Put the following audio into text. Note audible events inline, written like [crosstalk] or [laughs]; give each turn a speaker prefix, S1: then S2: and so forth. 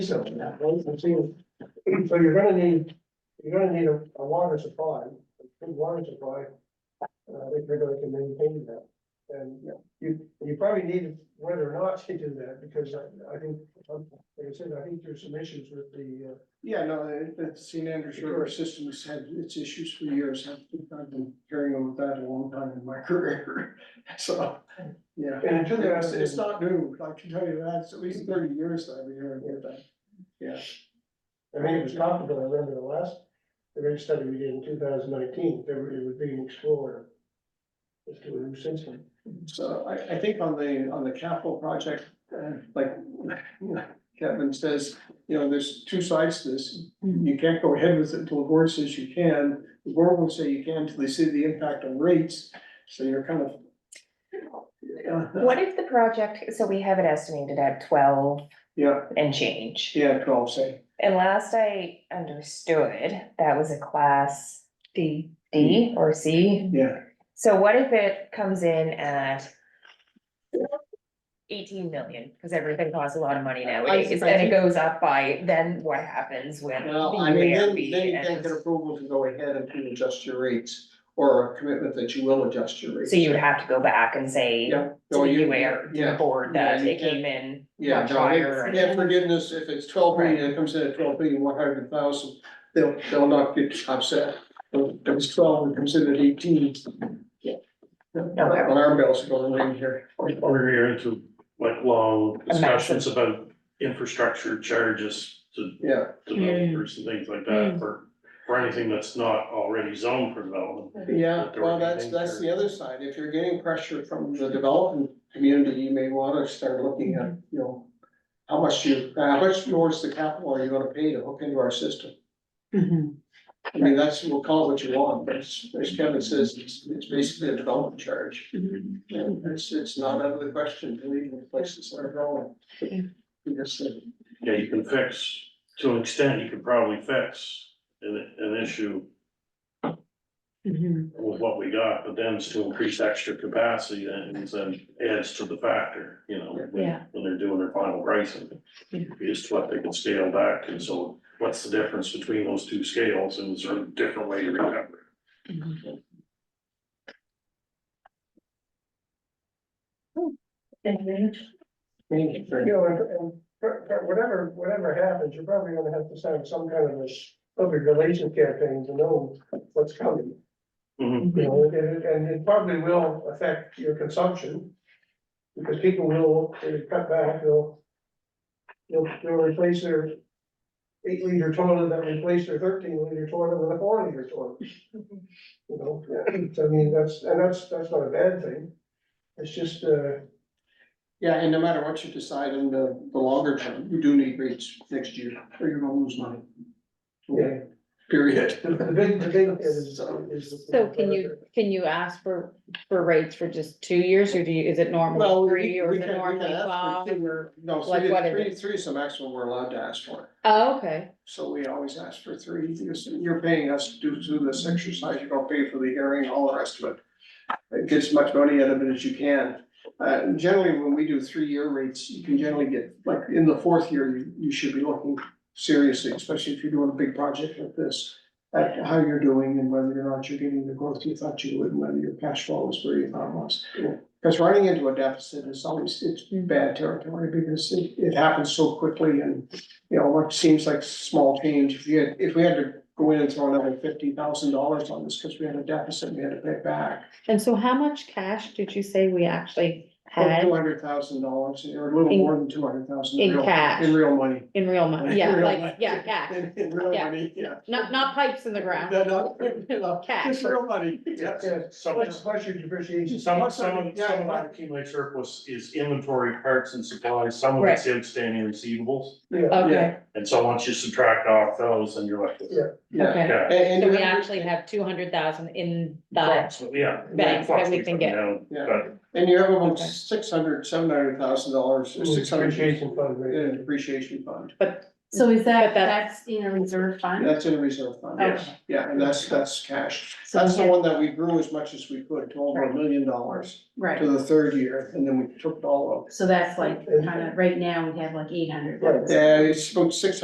S1: So that one, I'm seeing, so you're gonna need, you're gonna need a, a water supply, a good water supply. Uh, if you're going to maintain that, and you, you probably need it whether or not you do that, because I, I think, um, like I said, I think there's some issues with the, uh.
S2: Yeah, no, it- the St. Andrews River system has had its issues for years. I've I've been carrying on with that a long time in my [laughs] career. So, yeah.
S1: And it took
S2: It's,
S1: us,
S2: it's not new. I can tell you that. It's at least thirty years that I've been hearing about that.
S1: I mean, it was talked about, I remember the last, the rate study we did in two thousand nineteen, there were- it was being explored. It's doing since then.
S2: So I, I think on the, on the capital project, uh, like Kevin says, you know, there's two sides to this. You can't go ahead with it until the board says you can. The board will say you can until they see the impact on rates. So you're kind of. Yeah,
S3: What if the project, so we have it estimated at twelve
S2: Yeah,
S3: and change.
S2: yeah, twelve, say.
S3: And last I understood, that was a class D, D or C.
S2: Yeah,
S3: So what if it comes in at eighteen million, because everything costs a lot of money nowadays, and it goes up by, then what happens with the
S2: well, I mean, then,
S3: UARB?
S2: then you can't
S3: and-
S2: get approval to go ahead and to adjust your rates, or a commitment that you will adjust your rates.
S3: So you would have to go back and say to
S2: Yeah.
S3: the
S2: No, you-
S3: UARB, to the
S2: yeah,
S3: board,
S2: yeah,
S3: that
S2: you
S3: it came in
S2: Yeah,
S3: much
S2: no, if,
S3: higher. and-
S2: if forgiveness, if it's twelve million, it comes in at twelve million, one hundred thousand, they'll, they'll not get upset. If it's twelve, it comes in at eighteen. Yeah. Alarm bells are going ring here.
S4: Or you're into like long discussions about infrastructure charges to
S2: Yeah,
S4: developers and things like that for, for anything that's not already zoned for development.
S2: Yeah,
S4: But there
S2: well,
S4: would be
S2: that's,
S4: things
S2: that's
S4: that-
S2: the other side. If you're getting pressure from the development community, you may wanna start looking at, you know. How much you, uh, how much towards the capital are you gonna pay to hook into our system? I mean, that's, we'll call it what you want, but it's, as Kevin says, it's, it's basically a development charge. And it's, it's not out of the question, to leave the places that are growing. Because, uh,
S4: Yeah, you can fix, to an extent, you could probably fix an, an issue with what we got, but then it's to increase extra capacity and then adds to the factor, you know, when,
S3: Yeah.
S4: when they're doing their final pricing. Is what they can scale back, and so what's the difference between those two scales, and is there a different way to recover? it?
S2: maybe for-
S1: You know, and- and for- for whatever, whatever happens, you're probably gonna have to start some kind of a public relations campaign to know what's coming.
S4: Mhm.
S1: You know, and, it- and it probably will affect your consumption. Because people will, they cut back, they'll. They'll, they'll replace their eight liter toilet, they'll replace their thirteen liter toilet with a four liter toilet. You know, so I mean, that's, and that's, that's not a bad thing. It's just, uh.
S2: Yeah, and no matter what you decide in the, the longer term, you do need rates next year, or you're gonna lose money.
S1: Yeah.
S2: Period.
S1: The big, the big is, uh, is.
S5: So can you, can you ask for, for rates for just two years, or do you, is it normally three, or is it normally five?
S2: No,
S5: Like,
S2: three,
S5: what is
S2: three, three is the maximum we're allowed to ask for,
S5: Oh, okay,
S2: so we always ask for three, because you're paying us to do through this exercise, you don't pay for the hearing, all the rest of it. Uh, Get as much money out of it as you can, uh, generally, when we do three-year rates, you can generally get, like, in the fourth year, you, you should be looking seriously, especially if you're doing a big project like this. At how you're doing and whether or not you're getting the growth you thought you would, and whether your cash flow is where you thought it was. Because running into a deficit is always, it's bad territory because it, it happens so quickly and, you know, what seems like small change, if you had, if we had to go in and throw another fifty thousand dollars on this because we had a deficit, we had to pay back.
S5: and so how much cash did you say we actually had
S2: Two hundred thousand dollars or a little
S5: In-
S2: more than two hundred thousand.
S5: in cash?
S2: In real money.
S5: in real money?
S2: In
S5: Yeah,
S2: real
S5: like,
S2: money.
S5: yeah, cash,
S2: In in real
S5: Yeah.
S2: money, yeah.
S5: not, not pipes in the ground.
S2: No, [laughs] no, no,
S5: Cash.
S2: Just real money, yes.
S1: Yeah, so much, much your depreciation.
S4: Some, some, of- some of that accumulated surplus is inventory parts and supplies, some of it's outstanding receivables.
S1: Yeah,
S5: Okay,
S4: And so once you subtract off those, and you're like,
S1: Yeah.
S2: Yeah.
S5: okay,
S4: okay,
S2: And- and
S5: so
S2: you
S5: we
S2: have-
S5: actually have two hundred thousand in the,
S4: approximately, yeah.
S5: Bank that we can get.
S4: Fluctuates up and
S2: Yeah.
S4: down,
S2: And you have about
S5: Okay.
S2: six hundred, seven hundred thousand dollars, six hundred
S1: Depreciation fund, right?
S2: in depreciation fund.
S5: but
S6: So is
S5: But
S6: that,
S5: that's-
S6: that's in a reserve fund?
S2: That's in a reserve fund, yes,
S6: Okay.
S2: yeah, and that's, that's cash.
S6: So
S2: That's the
S6: yeah,
S2: one that we grew as much as we could, to over a million dollars to
S6: Right,
S2: the third year, and then we took it all up.
S6: so that's like, kind of, right now, we have like eight hundred.
S1: Right.
S2: Yeah, it's about six